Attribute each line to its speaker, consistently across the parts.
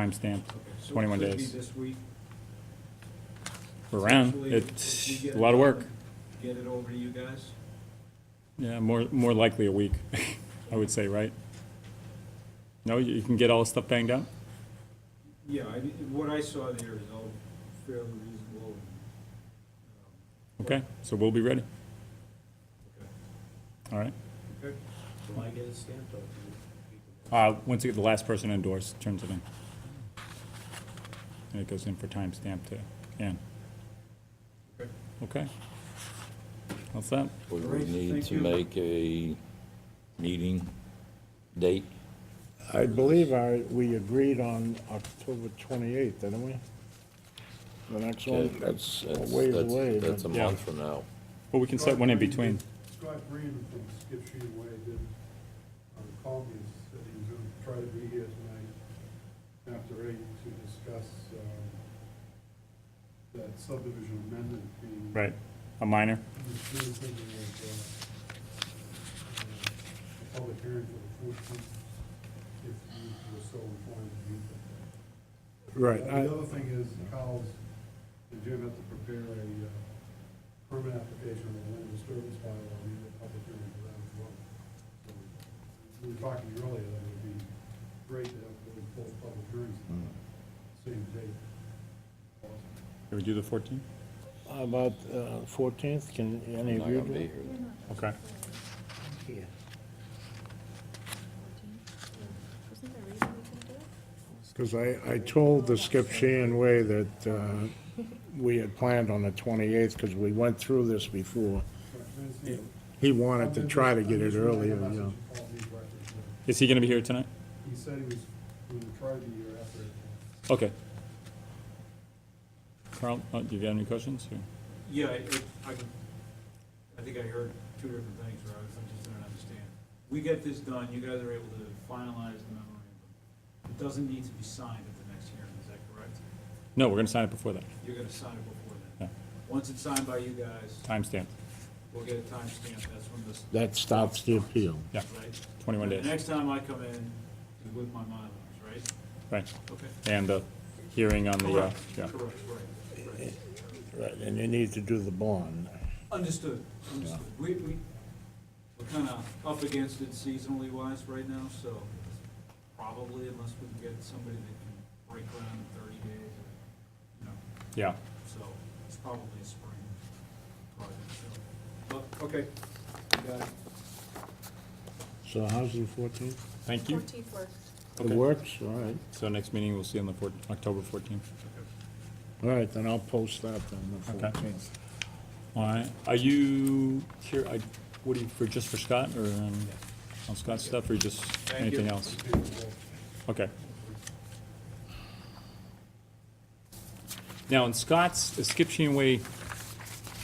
Speaker 1: timestamp,
Speaker 2: So it
Speaker 1: 21
Speaker 2: could be
Speaker 1: days.
Speaker 2: This week,
Speaker 1: We're around.
Speaker 2: Essentially, we
Speaker 1: It's
Speaker 2: get
Speaker 1: a lot of
Speaker 2: it
Speaker 1: work.
Speaker 2: done, Get it over to you guys?
Speaker 1: Yeah, more, more likely a week, I would say, right? No, you you can get all the stuff banged out?
Speaker 2: Yeah, I, what I saw there is all fairly reasonable.
Speaker 1: Okay, so we'll be ready.
Speaker 2: Okay.
Speaker 1: All right.
Speaker 2: um, Okay.
Speaker 3: Will I get it stamped or?
Speaker 1: Uh, once you get the last person endorsed, turns it in. And it goes in for timestamp to Ann.
Speaker 2: Okay.
Speaker 1: Okay. What's that?
Speaker 4: We
Speaker 2: All right,
Speaker 4: would need
Speaker 2: thank
Speaker 4: to
Speaker 2: you.
Speaker 4: make a meeting date.
Speaker 5: I believe I, we agreed on October 28th, didn't we? The next
Speaker 4: Okay,
Speaker 5: one?
Speaker 4: That's,
Speaker 5: a
Speaker 4: that's,
Speaker 5: ways
Speaker 4: that's-
Speaker 5: away,
Speaker 4: that's a
Speaker 5: but-
Speaker 1: Yeah.
Speaker 4: month from now.
Speaker 1: Well, we can set one in between.
Speaker 6: Scott Green from Skip Sheet Way did, um, call me, and said he was gonna try to be here tonight after eight to discuss, um, that subdivision amendment being.
Speaker 1: Right. A minor?
Speaker 6: He was doing something like, uh, uh, a public hearing for the fourteenth, if you were so inclined to do that.
Speaker 5: Right,
Speaker 6: Uh,
Speaker 5: I-
Speaker 6: The other thing is, Kyle's, and Jim have to prepare a uh, permit application on the land disturbance bylaw, we need a public hearing for that as well. So, We were talking earlier, that it would be great to have really both public hearings on the same day.
Speaker 1: Can we do the 14th?
Speaker 5: how about uh, 14th, can
Speaker 4: I'm
Speaker 5: any
Speaker 4: not
Speaker 5: of you
Speaker 4: gonna be
Speaker 5: do?
Speaker 4: here.
Speaker 1: Okay.
Speaker 3: Yeah.
Speaker 7: Wasn't there a reason we couldn't do it?
Speaker 5: Because I, I told the Skip Sheehan Way that uh, we had planned on the 28th, because we went through this before. He wanted to try to get it earlier, you know.
Speaker 1: Is he gonna be here tonight?
Speaker 6: He said he was, he would try to be here after. uh,
Speaker 1: Okay. Carl, uh, do you have any questions? or-
Speaker 2: Yeah, I, it- I, can- I think I heard two different things, or I I just don't understand. We get this done, you guys are able to finalize the memorandum. It doesn't need to be signed at the next hearing, is that correct?
Speaker 1: No, we're gonna sign it before that.
Speaker 2: You're gonna sign it before
Speaker 1: Yeah.
Speaker 2: then. Once it's signed by you guys,
Speaker 1: Timestamp,
Speaker 2: we'll get a timestamp, that's when this,
Speaker 5: That stops the appeal.
Speaker 1: yeah,
Speaker 2: right?
Speaker 1: 21
Speaker 2: The
Speaker 1: days,
Speaker 2: next time I come in is with my Mylars, right?
Speaker 1: right.
Speaker 2: Okay.
Speaker 1: And the hearing on the, uh,
Speaker 2: Correct,
Speaker 1: yeah.
Speaker 2: correct, right, right.
Speaker 5: Right, and you need to do the bond.
Speaker 2: Understood, understood. We, we, we're kind of up against it seasonally wise right now, so probably unless we can get somebody that can break ground in thirty days, or, you know,
Speaker 1: yeah.
Speaker 2: so it's probably a spring project, so. But, okay, we got it.
Speaker 5: So how's the 14th?
Speaker 1: Thank you.
Speaker 7: Fourteenth works.
Speaker 5: It
Speaker 1: Okay.
Speaker 5: works, all right.
Speaker 1: So next meeting, we'll see on the 14th, October 14th.
Speaker 5: All right, then I'll post that on the
Speaker 1: Okay.
Speaker 5: 14th.
Speaker 1: All right, are you here, I- what do you, for, just for Scott, or um, on Scott's stuff, or just
Speaker 2: Thank
Speaker 1: anything
Speaker 2: you.
Speaker 1: else? Okay. Now, in Scott's, the Skip Sheen Way,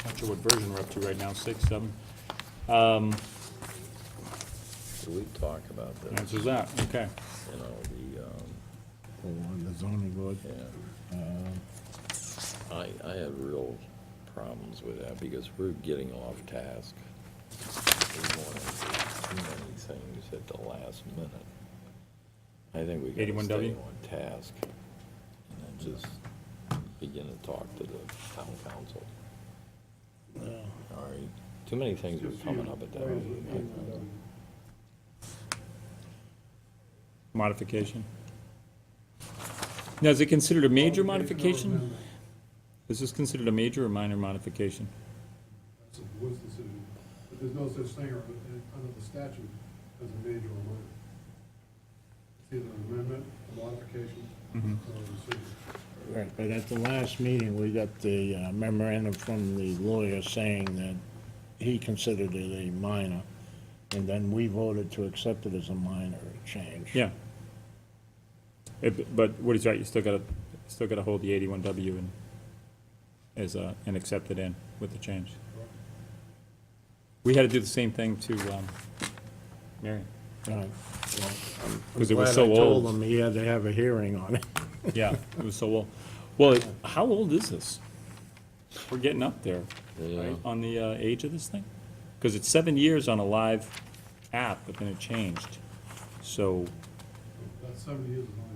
Speaker 1: not sure what version we're up to right now, six, seven? Um,
Speaker 4: So we talk about this,
Speaker 1: Answers that, okay.
Speaker 4: you know, the, um,
Speaker 5: Oh, on the zoning board. Uh,
Speaker 4: yeah. I, I have real problems with that because we're getting off task. We want to do too many things at the last minute. I think we gotta
Speaker 1: 81W?
Speaker 4: stay on task and then just begin to talk to the town council. All right, too many things were coming up at that meeting.
Speaker 1: Modification. Now, is it considered a major modification? Is this considered a major or minor modification?
Speaker 6: That's a board's decision, but there's no such thing or- under the statute as a major or minor. It's either an amendment, a modification, or a decision.
Speaker 5: Right, but at the last meeting, we got the uh, memorandum from the lawyer saying that he considered it a minor, and then we voted to accept it as a minor change.
Speaker 1: Yeah. Eh, b- But Woody's right, you still gotta, still gotta hold the eighty-one W and, as a, and accept it in with the change. We had to do the same thing to, um, Marion.
Speaker 5: Right. Well, I'm- I'm
Speaker 1: 'Cause it was
Speaker 5: glad
Speaker 1: so
Speaker 5: I told
Speaker 1: old.
Speaker 5: them he had to have a hearing on it.
Speaker 1: Yeah, it was so old. Well, it- how old is this? We're getting up there,
Speaker 4: Yeah.
Speaker 1: right, on the, uh, age of this thing? Cause it's seven years on a live app, but then it changed. So,
Speaker 6: That seventy years is on